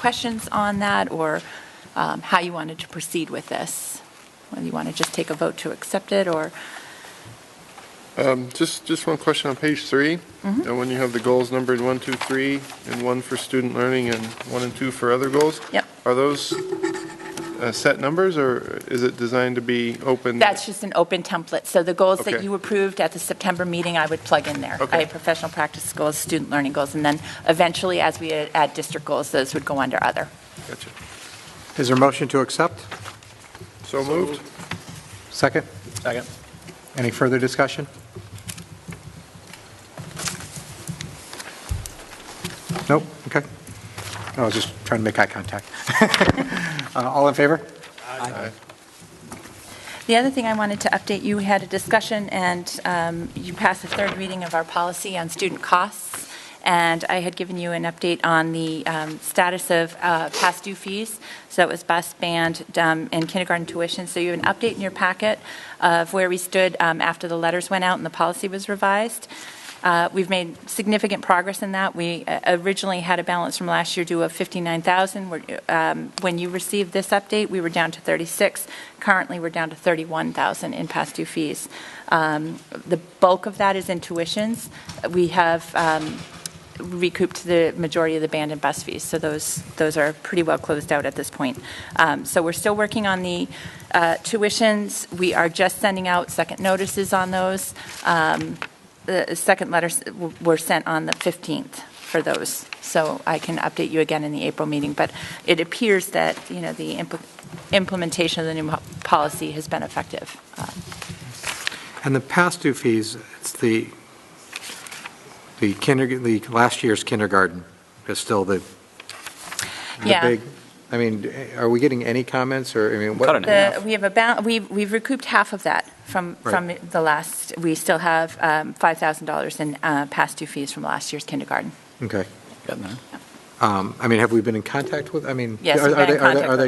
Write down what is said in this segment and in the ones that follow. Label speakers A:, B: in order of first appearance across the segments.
A: questions on that or um, how you wanted to proceed with this. Whether you want to just take a vote to accept it or,
B: Um, Just, just one question on page three.
A: Mm-hmm.
B: And when you have the goals numbered one, two, three, and one for student learning and one and two for other goals?
A: Yep.
B: Are those uh, set numbers or is it designed to be open?
A: that's just an open template. So the goals that
B: Okay.
A: you approved at the September meeting, I would plug in there.
B: Okay.
A: I have professional practice goals, student learning goals, and then eventually, as we add district goals, those would go under other.
B: Gotcha.
C: Is there a motion to accept?
B: So moved?
C: Second?
D: Second.
C: Any further discussion? Nope, okay. I was just trying to make eye contact. Uh, All in favor?
A: The other thing I wanted to update, you had a discussion, and um, you passed the third reading of our policy on student costs, and I had given you an update on the um, status of uh, past due fees, so it was bus, band, um, and kindergarten tuition, so you have an update in your packet of where we stood um, after the letters went out and the policy was revised. Uh, We've made significant progress in that. We uh, originally had a balance from last year due of 59,000. We're, um, When you received this update, we were down to 36. Currently, we're down to 31,000 in past due fees. Um, The bulk of that is in tuitions. We have um, recouped the majority of the band and bus fees, so those, those are pretty well closed out at this point. Um, So we're still working on the uh, tuitions. We are just sending out second notices on those the second letters w- were sent on the 15th for those, so I can update you again in the April meeting, but it appears that, you know, the impl- implementation of the new mo- policy has been effective. Um,
C: And the past due fees, it's the, the kinder, the last year's kindergarten is still the, the
A: Yeah.
C: big, I mean, are we getting any comments or, I mean, what?
D: Cutting it.
A: The-
D: Enough.
A: We have about, we've we've recouped half of that from, from
C: Right.
A: the last, we still have um, $5,000 in uh, past due fees from last year's kindergarten.
C: Okay.
D: Getting there.
C: Um, I mean, have we been in contact with, I mean?
A: Yes,
C: are-
A: we've
C: are
A: been in
C: they- are they-
A: contact with all of
C: Are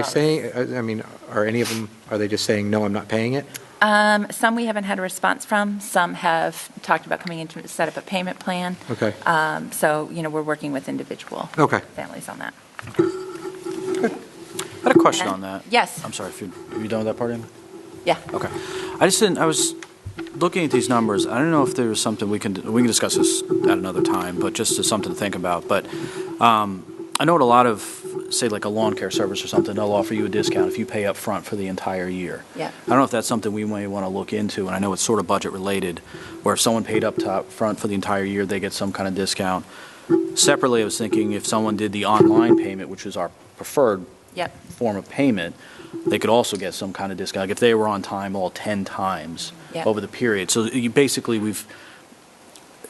C: they saying, I mean, are any of them, are they just saying, no, I'm not paying it?
A: Um, Some we haven't had a response from, some have talked about coming in to set up a payment plan.
C: Okay.
A: Um, So, you know, we're working with individual
C: Okay.
A: families on that.
D: I had a question on that.
A: Yes.
D: I'm sorry, if you, are you done with that part, Amy?
A: Yeah.
D: Okay. I just didn't, I was looking at these numbers, I don't know if there was something we can, we can discuss this at another time, but just as something to think about, but um, I know at a lot of, say like a lawn care service or something, they'll offer you a discount if you pay up front for the entire year.
A: Yeah.
D: I don't know if that's something we may want to look into, and I know it's sort of budget related, where if someone paid up top front for the entire year, they get some kind of discount. Separately, I was thinking if someone did the online payment, which is our preferred
A: Yep.
D: form of payment, they could also get some kind of discount, like if they were on time all 10 times
A: Yeah.
D: over the period. So you, basically, we've,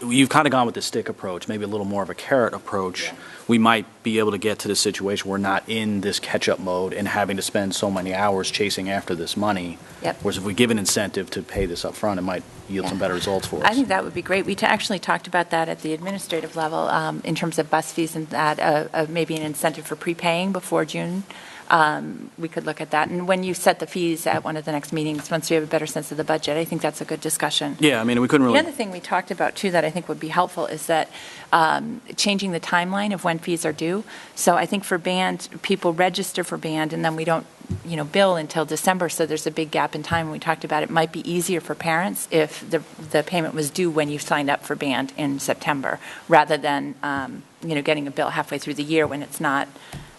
D: you've kind of gone with the stick approach, maybe a little more of a carrot approach. We might be able to get to the situation where we're not in this catch-up mode and having to spend so many hours chasing after this money.
A: Yep.
D: Whereas if we give an incentive to pay this up front, it might yield some
A: Yeah.
D: better results for us.
A: I think that would be great. We ta- actually talked about that at the administrative level um, in terms of bus fees and that, uh, uh, maybe an incentive for prepaying before June. Um, We could look at that. And when you set the fees at one of the next meetings, once we have a better sense of the budget, I think that's a good discussion.
D: Yeah, I mean, we couldn't really.
A: The other thing we talked about, too, that I think would be helpful is that um, changing the timeline of when fees are due. So I think for band, people register for band, and then we don't, you know, bill until December, so there's a big gap in time. We talked about it might be easier for parents if the, the payment was due when you signed up for band in September, rather than, um, you know, getting a bill halfway through the year when it's not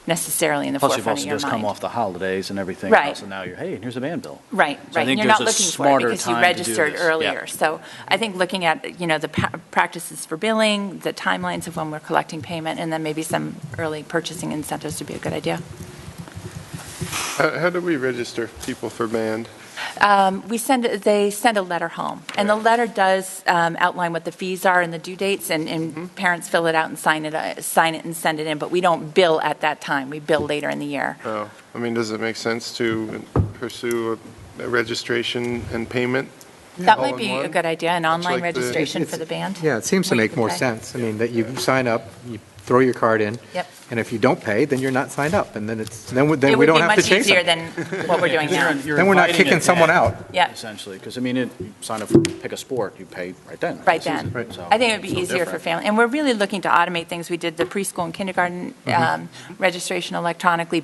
A: necessarily in the
D: Plus,
A: forefront
D: you've
A: of your mind.
D: also just come off the holidays and everything
A: Right.
D: else, and now you're, hey, here's the band bill.
A: Right,
D: So I
A: right. And
D: think
A: You're
D: there's
A: not
D: a
A: looking for it
D: smarter
A: because you
D: time to do
A: registered
D: this. Yeah.
A: earlier. So I think looking at, you know, the pa- practices for billing, the timelines of when we're collecting payment, and then maybe some early purchasing incentives would be a good idea.
B: How how do we register people for band?
A: Um, We send, they send a letter home, and the letter does um, outline what the fees are and the due dates, and,
D: Mm-hmm.
A: and parents fill it out and sign it, uh, sign it and send it in, but we don't bill at that time. We bill later in the year.
C: Uh,
B: Oh, I mean, does it make sense to pursue a- a registration and payment?
A: That
B: All
A: might
B: in
A: be a
B: one?
A: good idea, an
B: Much
A: online
B: like the-
A: registration
C: It's-
A: for the band.
C: Yeah, it seems to
A: Where you
C: make
A: can
C: more
A: pay.
C: sense. I mean, that you sign up, you throw your card in.
A: Yep.
C: And if you don't pay, then you're not signed up, and then it's, then we
A: It
C: then we
A: would be
C: don't have to
A: much
C: chase
A: easier
C: them.
A: than what we're doing now.
C: Then we're not kicking someone out.
A: Yeah.
D: Essentially, because I mean, it- you sign up for, pick a sport, you pay right then.
A: Right
D: It's easy.
A: then.
D: So
A: I think it would
D: it's
A: be
D: no
A: easier for
D: different. Mm-hmm.
A: family, and we're really looking to automate things. We did the preschool and kindergarten um, registration electronically,